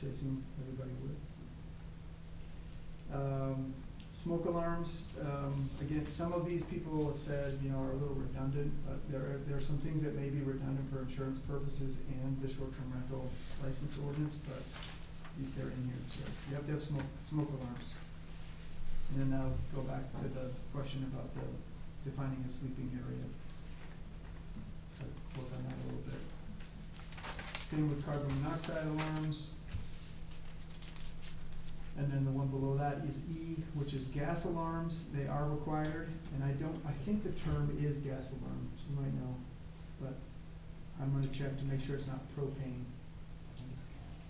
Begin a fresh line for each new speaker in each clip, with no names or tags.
which I assume everybody would. Um, smoke alarms, um, again, some of these people have said, you know, are a little redundant, but there are, there are some things that may be redundant for insurance purposes and the short-term rental license ordinance, but they're in here, so you have to have smoke, smoke alarms. And then I'll go back to the question about the defining a sleeping area. So Work on that a little bit. Same with carbon monoxide alarms. And then the one below that is E, which is gas alarms, they are required, and I don't, I think the term is gas alarm, you might know, but I'm gonna check to make sure it's not propane,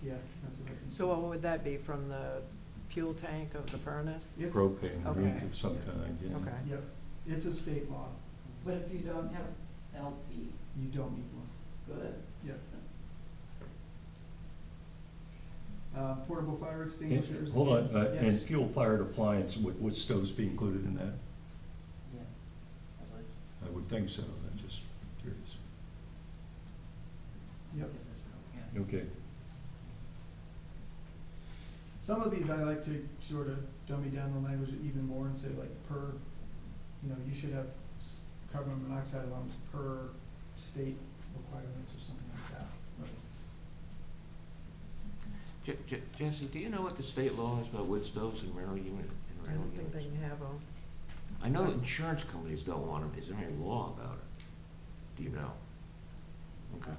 yeah, that's what I think.
So uh, what would that be, from the fuel tank of the furnace?
If-
propane,
Okay.
leak of some kind, yeah.
Okay.
Yep, it's a state law,
But if you don't have LP,
you don't need one.
good.
Uh, portable fire extinguishers.
Hold on, uh, and
Yes,
fuel fired appliance, would, would stoves be included in that?
Yeah.
I would think so, I'm just curious.
yep.
Okay,
Some of these I like to sort of dummy down the language even more and say like per, you know, you should have s- carbon monoxide alarms per state requirements or something like that.
Je- Je- Jesse, do you know what the state law is about wood stoves and rental unit, and
I
rental
don't think they
units?
can have them.
I know insurance companies don't want them, is there any law about it? Do you know? Okay,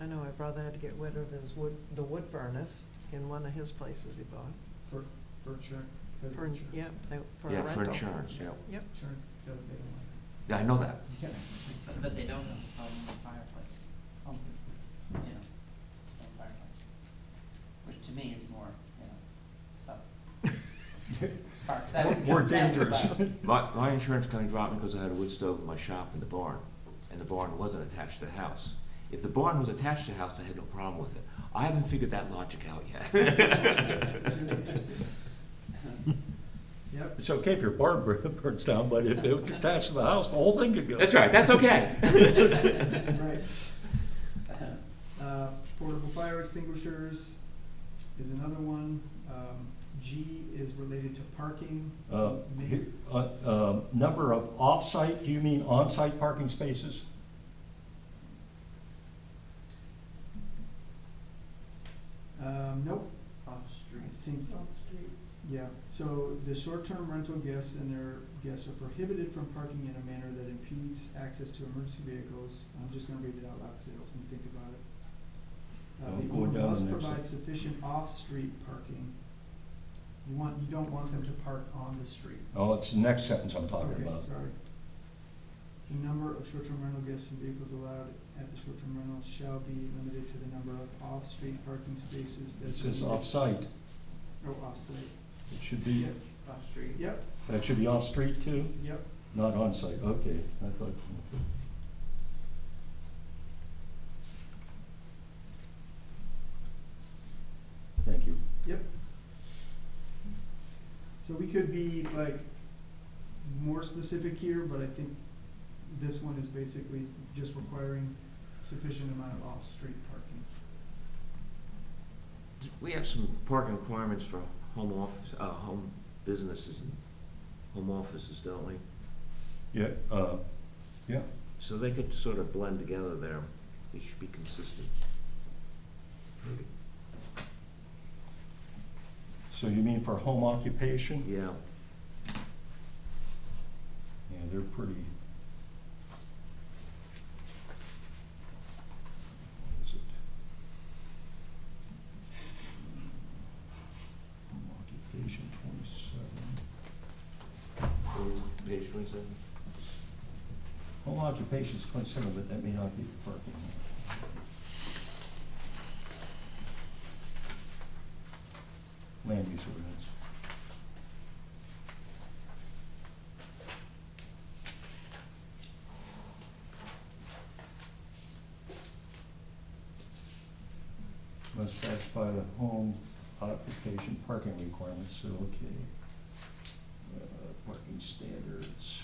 I know my brother had to get rid of his wood, the wood furnace in one of his places he bought.
For, for insurance, because of
For,
insurance.
yeah, they- for a
yeah,
rental.
for insurance, yeah,
Insurance, they don't, they don't like
yeah, I know that,
it. Yeah.
But, but they don't have a problem with fireplace, um, you know, stone fireplace, which to me is more, you know, stuff. Sparks, that would.
More
jump out the
dangerous.
butt.
my, my insurance company dropped me because I had a wood stove in my shop in the barn, and the barn wasn't attached to the house. If the barn was attached to the house, I had no problem with it, I haven't figured that logic out yet.
It's really interesting. Yep,
it's okay if your barn bur- burns down, but if it was attached to the house, the whole thing could go.
That's right, that's okay.
right. Uh, portable fire extinguishers is another one. Um, G is related to parking.
Uh,
May-
he- uh, uh, number of off-site, do you mean on-site parking spaces?
Um, nope,
Off street.
I think,
Off street.
yeah, so the short-term rental guests and their guests are prohibited from parking in a manner that impedes access to emergency vehicles. I'm just gonna read it out loud because it helps me think about it. Uh,
Well,
the
going
owner
down
must
the next
provide sufficient off-street parking. You want, you don't want them to park on the street.
Oh, it's the next sentence I'm talking
Okay,
about.
sorry. The number of short-term rental guests and vehicles allowed at the short-term rental shall be limited to the number of off-street parking spaces
It
that's.
says off-site,
Oh, off-site,
it should be,
yep,
Off street.
yep,
that should be off-street too?
yep,
Not on-site, okay, I thought, Thank you.
so we could be like more specific here, but I think this one is basically just requiring sufficient amount of off-street parking.
We have some parking requirements for home office, uh, home businesses and home offices, don't we?
Yeah, uh,
So they could sort of blend together there. They should be consistent. Maybe.
so you mean for home occupation?
Yeah,
Yeah, they're pretty. What is it? Home occupation twenty-seven.
page twenty-seven.
Home occupation is twenty-seven, but that may not be for parking. Land use ordinance. Must satisfy the home occupation parking requirements, so, okay. Uh, Parking standards.